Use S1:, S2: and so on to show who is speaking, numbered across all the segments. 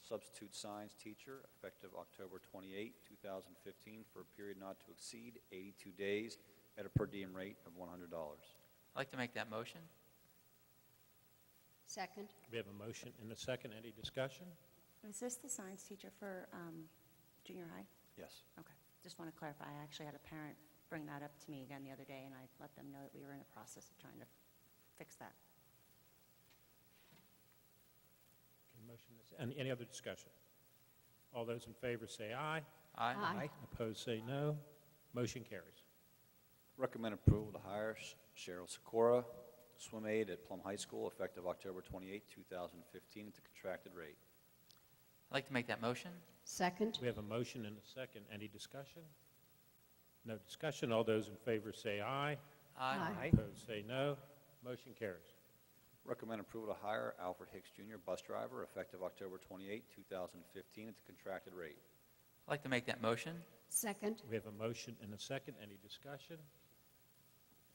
S1: substitute science teacher, effective October 28, 2015, for a period not to exceed 82 days at a per diem rate of $100.
S2: I'd like to make that motion.
S3: Second.
S4: We have a motion and a second. Any discussion?
S5: Is this the science teacher for um, junior high?
S1: Yes.
S5: Okay, just want to clarify, I actually had a parent bring that up to me again the other day, and I let them know that we were in the process of trying to fix that.
S4: Can motion this- Any any other discussion? All those in favor say aye.
S2: Aye.
S3: Aye.
S4: Opposed say no. Motion carries.
S1: Recommend approval to hire Sh- Cheryl Sikora, swim aide at Plum High School, effective October 28, 2015, at the contracted rate.
S2: I'd like to make that motion.
S3: Second.
S4: We have a motion and a second. Any discussion? No discussion. All those in favor say aye.
S3: Aye.
S4: Opposed say no. Motion carries.
S1: Recommend approval to hire Alfred Hicks Jr., bus driver, effective October 28, 2015, at the contracted rate.
S2: I'd like to make that motion.
S3: Second.
S4: We have a motion and a second. Any discussion?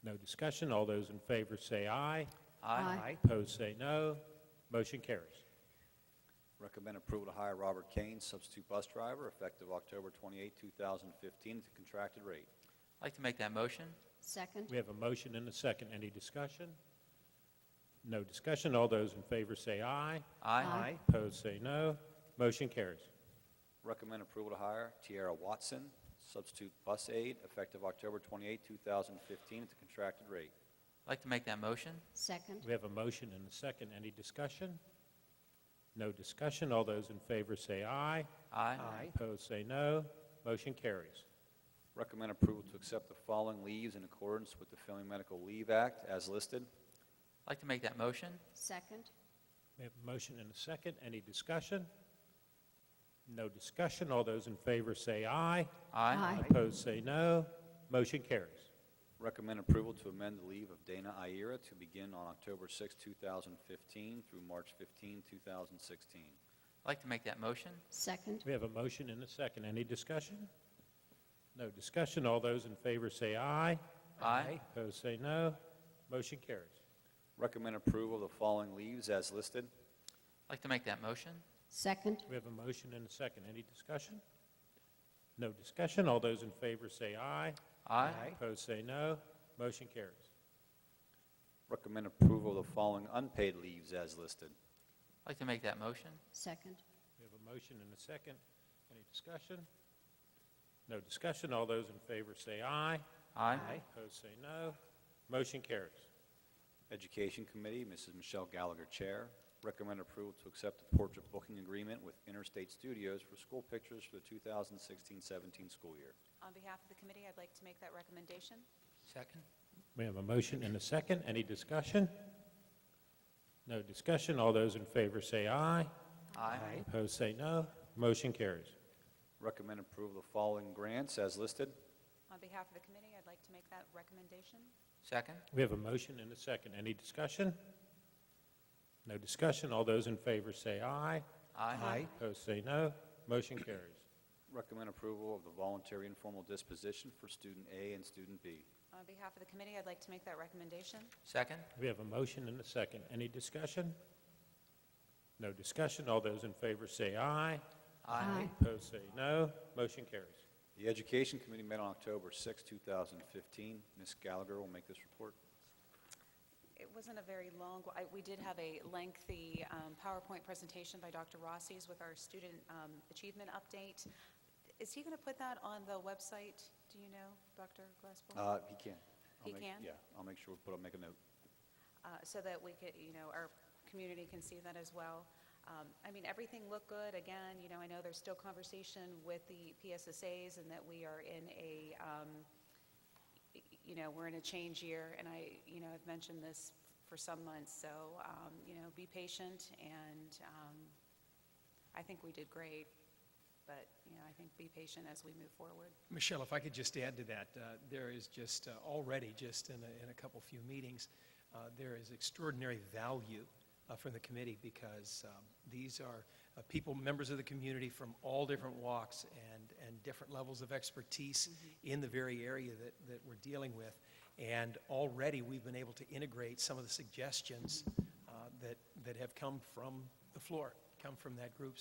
S4: No discussion. All those in favor say aye.
S3: Aye.
S4: Opposed say no. Motion carries.
S1: Recommend approval to hire Robert Kane, substitute bus driver, effective October 28, 2015, at the contracted rate.
S2: I'd like to make that motion.
S3: Second.
S4: We have a motion and a second. Any discussion? No discussion. All those in favor say aye.
S3: Aye.
S4: Opposed say no. Motion carries.
S1: Recommend approval to hire Tiara Watson, substitute bus aide, effective October 28, 2015, at the contracted rate.
S2: I'd like to make that motion.
S3: Second.
S4: We have a motion and a second. Any discussion? No discussion. All those in favor say aye.
S2: Aye.
S4: Opposed say no. Motion carries.
S1: Recommend approval to accept the following leaves in accordance with the Family Medical Leave Act as listed.
S2: I'd like to make that motion.
S3: Second.
S4: We have a motion and a second. Any discussion? No discussion. All those in favor say aye.
S3: Aye.
S4: Opposed say no. Motion carries.
S1: Recommend approval to amend the leave of Dana Iera to begin on October 6, 2015 through March 15, 2016.
S2: I'd like to make that motion.
S3: Second.
S4: We have a motion and a second. Any discussion? No discussion. All those in favor say aye.
S2: Aye.
S4: Opposed say no. Motion carries.
S1: Recommend approval of the following leaves as listed.
S2: I'd like to make that motion.
S3: Second.
S4: We have a motion and a second. Any discussion? No discussion. All those in favor say aye. Opposed say no. Motion carries.
S1: Recommend approval of the following unpaid leaves as listed.
S2: I'd like to make that motion.
S3: Second.
S4: We have a motion and a second. Any discussion? No discussion. All those in favor say aye.
S2: Aye.
S4: Opposed say no. Motion carries.
S1: Education Committee, Mrs. Michelle Gallagher, Chair. Recommend approval to accept the portrait booking agreement with Interstate Studios for school pictures for the 2016-17 school year.
S6: On behalf of the committee, I'd like to make that recommendation.
S2: Second.
S4: We have a motion and a second. Any discussion? No discussion. All those in favor say aye.
S2: Aye.
S4: Opposed say no. Motion carries.
S1: Recommend approval of the following grants as listed.
S6: On behalf of the committee, I'd like to make that recommendation.
S2: Second.
S4: We have a motion and a second. Any discussion? No discussion. All those in favor say aye.
S2: Aye.
S4: Opposed say no. Motion carries.
S1: Recommend approval of the voluntary informal disposition for student A and student B.
S6: On behalf of the committee, I'd like to make that recommendation.
S2: Second.
S4: We have a motion and a second. Any discussion? No discussion. All those in favor say aye.
S3: Aye.
S4: Opposed say no. Motion carries.
S1: The Education Committee met on October 6, 2015. Ms. Gallagher will make this report.
S6: It wasn't a very long, I- we did have a lengthy um, PowerPoint presentation by Dr. Rossi's with our student um, achievement update. Is he going to put that on the website? Do you know, Dr. Glassboro?
S1: Uh, He can. I'll
S6: He
S1: make-
S6: can?
S1: Yeah, I'll make sure, we put, I'll make a note.
S6: uh, so that we could, you know, our community can see that as well. Um, I mean, everything looked good. Again, you know, I know there's still conversation with the PSSAs and that we are in a, um, y- you know, we're in a change year, and I, you know, I've mentioned this for some months, so, um, you know, be patient, and um, I think we did great, but, you know, I think be patient as we move forward.
S7: Michelle, if I could just add to that, uh, there is just uh, already, just in a, in a couple few meetings, uh, there is extraordinary value uh, from the committee because um, these are uh, people, members of the community from all different walks and, and different levels of expertise in the very area that, that we're dealing with. And already we've been able to integrate some of the suggestions uh, that, that have come from the floor, come from that group.